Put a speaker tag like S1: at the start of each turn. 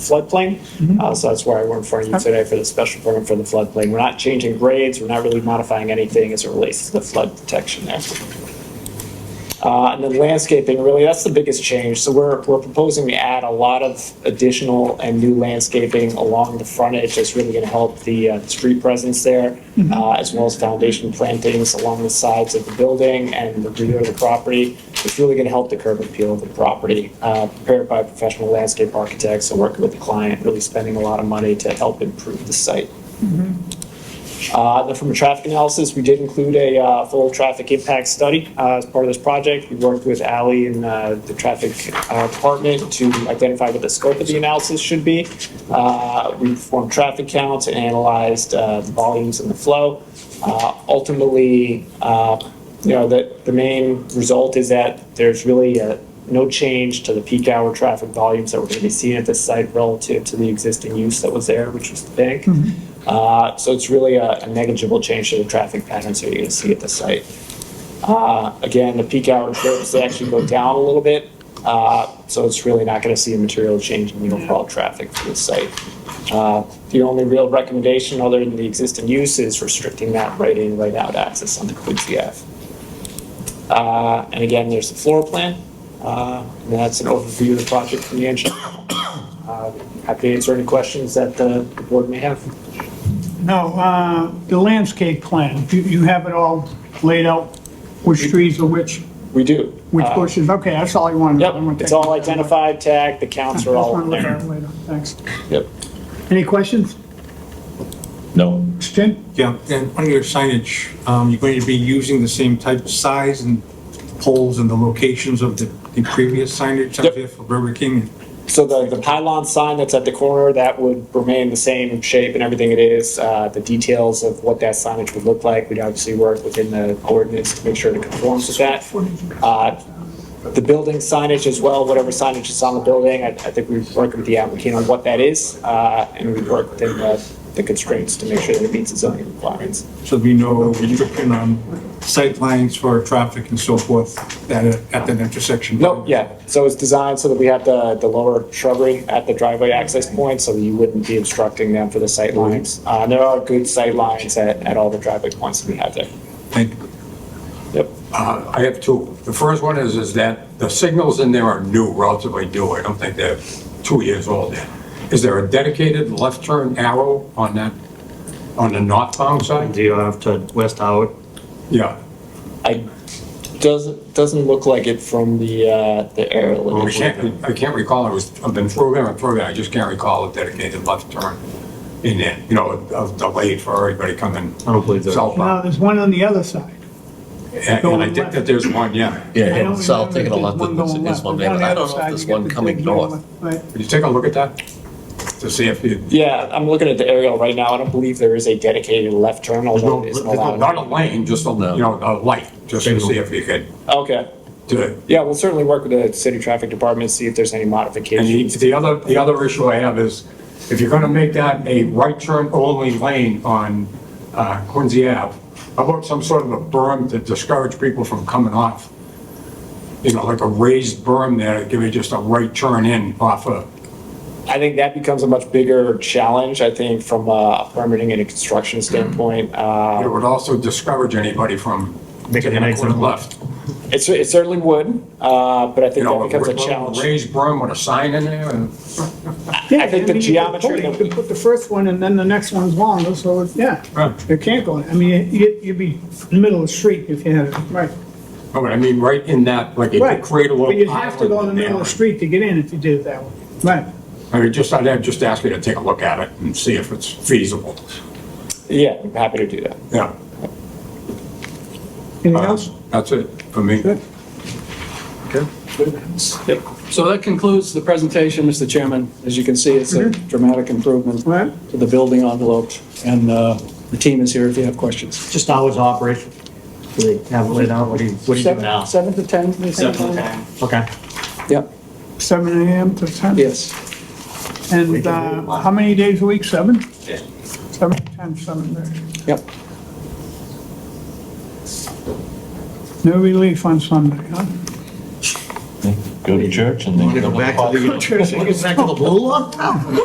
S1: floodplain. Uh, So that's why we're in front of you today for the special permit for the floodplain. We're not changing grades, we're not really modifying anything as it relates to the flood protection there. Uh, And then landscaping, really, that's the biggest change. So we're, we're proposing to add a lot of additional and new landscaping along the frontage that's really going to help the uh, street presence there, uh, as well as foundation plantings along the sides of the building and the rear of the property. It's really going to help the curb appeal of the property, uh, prepared by professional landscape architects and working with the client, really spending a lot of money to help improve the site. Uh, then From a traffic analysis, we did include a uh, full traffic impact study uh, as part of this project. We worked with Ally and uh, the traffic uh, department to identify what the scope of the analysis should be. Uh, We performed traffic counts and analyzed uh, the volumes and the flow. Uh, Ultimately, uh, you know, the, the main result is that there's really uh, no change to the peak hour traffic volumes that we're going to be seeing at this site relative to the existing use that was there, which was the bank. Uh, So it's really a a negligible change to the traffic patterns that you're going to see at the site. Uh, Again, the peak hour trips, they actually go down a little bit, uh, so it's really not going to see a material change in the overall traffic for the site. Uh, The only real recommendation, other than the existing use, is restricting that right-in, right-out access on the Quincy Ave. Uh, And again, there's the floor plan, uh, and that's an overview of the project from the engineer. Uh, Happy to answer any questions that the the board may have.
S2: No, uh, the landscape plan, you, you have it all laid out, which trees are which,
S1: We do.
S2: which
S1: Uh,
S2: bushes, okay, that's all I wanted. to know. I'm gonna
S1: Yep, it's
S2: take-
S1: all identified, tagged, the counts
S2: That's
S1: are
S2: what
S1: all
S2: I'm
S1: in
S2: looking
S1: there.
S2: at later. Thanks.
S1: Yep.
S2: Any questions?
S3: No.
S2: Jim?
S4: Yeah, and on your signage, um, you're going to be using the same type, size and poles and the locations of the, the previous signage
S1: Yep.
S4: out there for Burger King?
S1: So the, the pylon sign that's at the corner, that would remain the same shape and everything it is. Uh, the details of what that signage would look like, we'd obviously work within the ordinance to make sure it conforms with that. Uh, the building signage as well, whatever signage is on the building, I, I think we work with the applicant on what that is. Uh, and we work within the, the constraints to make sure that it meets the zoning requirements.
S4: So we know restriction on sightlines for traffic and so forth at, at that intersection?
S1: No, yeah, so it's designed so that we have the, the lower shrubbery at the driveway access point, so that you wouldn't be obstructing them for the sight
S5: Mm-hmm.
S1: lines. Uh, there are good sight lines at, at all the driveway points that we have there.
S4: Thank you.
S1: Yep,
S5: Uh, I have two. The first one is, is that the signals in there are new, relatively new. I don't think they're two years old yet. Is there a dedicated left turn arrow on that, on the northbound side?
S6: Do you have to West Howard?
S5: Yeah.
S1: I, doesn't, doesn't look like it from the, uh, the air.
S5: Well, I can't, I can't recall, I was, I've been through there and through there, I just can't recall a dedicated left turn in there. You know, a a delay for everybody coming
S6: I don't believe there is.
S2: No,
S5: southbound.
S2: there's one on the other side.
S5: And and I think that there's one, yeah.
S2: I
S7: Yeah,
S2: don't
S7: it's south
S2: remember
S7: taking a
S2: if
S7: left,
S2: there's one
S7: there's
S2: going
S7: there's
S2: left.
S7: one
S2: There's
S7: there,
S2: on
S7: but I
S2: the
S7: don't know
S2: other
S7: if there's
S2: side, you
S7: one
S2: get the
S7: coming
S2: big
S7: north.
S2: one, right.
S5: Would you take a look at that? To see if you,
S1: Yeah, I'm looking at the aerial right now, I don't believe there is a dedicated left turn, although it
S5: there's
S1: isn't
S5: no-
S1: allowed.
S5: not a lane, just a, you know, a light, just to see if you could
S1: Okay,
S5: do it.
S1: yeah, we'll certainly work with the city traffic department, see if there's any
S5: And the,
S1: modifications.
S5: the other, the other issue I have is, if you're gonna make that a right turn only lane on uh, Quincy Ave, how about some sort of a berm to discourage people from coming off? You know, like a raised berm there, give you just a right turn in off of,
S1: I think that becomes a much bigger challenge, I think, from a permitting and a construction standpoint. Uh,
S5: it would also discourage anybody from
S6: Making
S5: taking
S6: an
S5: a
S6: exit.
S5: quick left.
S1: It's, it certainly would, uh, but I
S5: You
S1: think
S5: know,
S1: that
S5: a
S1: becomes a
S5: ra-
S1: challenge.
S5: raised berm with a sign in there, and
S2: Yeah,
S1: I think the
S2: mean, you could
S1: geometry
S2: put it-
S1: that
S2: You could put the first one and then the next one's longer, so, it- yeah,
S5: Right.
S2: it can't go, in. I mean, you, you'd be in the middle of the street if you had it, right.
S5: no, but oh, I mean, right in that, like, you
S2: Right.
S5: could create a little.
S2: But you'd have to go in the
S5: island
S2: middle of the
S5: there.
S2: street to get in if you did it that way. Right.
S5: I mean, just, I'd just ask you to take a look at it and see if it's feasible.
S1: Yeah, I'm happy to do that.
S5: Yeah. Uh,
S2: Anything
S5: Uh-huh.
S2: else?
S5: That's it for me.
S2: Good.
S8: Yep. So that concludes the presentation, Mr. Chairman. As you can see, it's a dramatic improvement
S2: Mm-hmm. All right.
S8: to the building envelope, and uh, the team is here if you have questions.
S6: Just hours of operation? Do they have it laid out? What do you, what do you do
S8: Seven-
S6: now?
S8: Seven to 10? you think?
S6: Okay.
S8: Yep,
S2: Seven AM to ten?
S8: yes.
S2: And uh, how many days a week? Seven? Seven to ten, seven days.
S8: Yep.
S2: No relief on Sunday, huh?
S7: Good.
S3: go to church and then
S6: Wanna go
S3: come
S6: back to the, wanna go back to the blue law?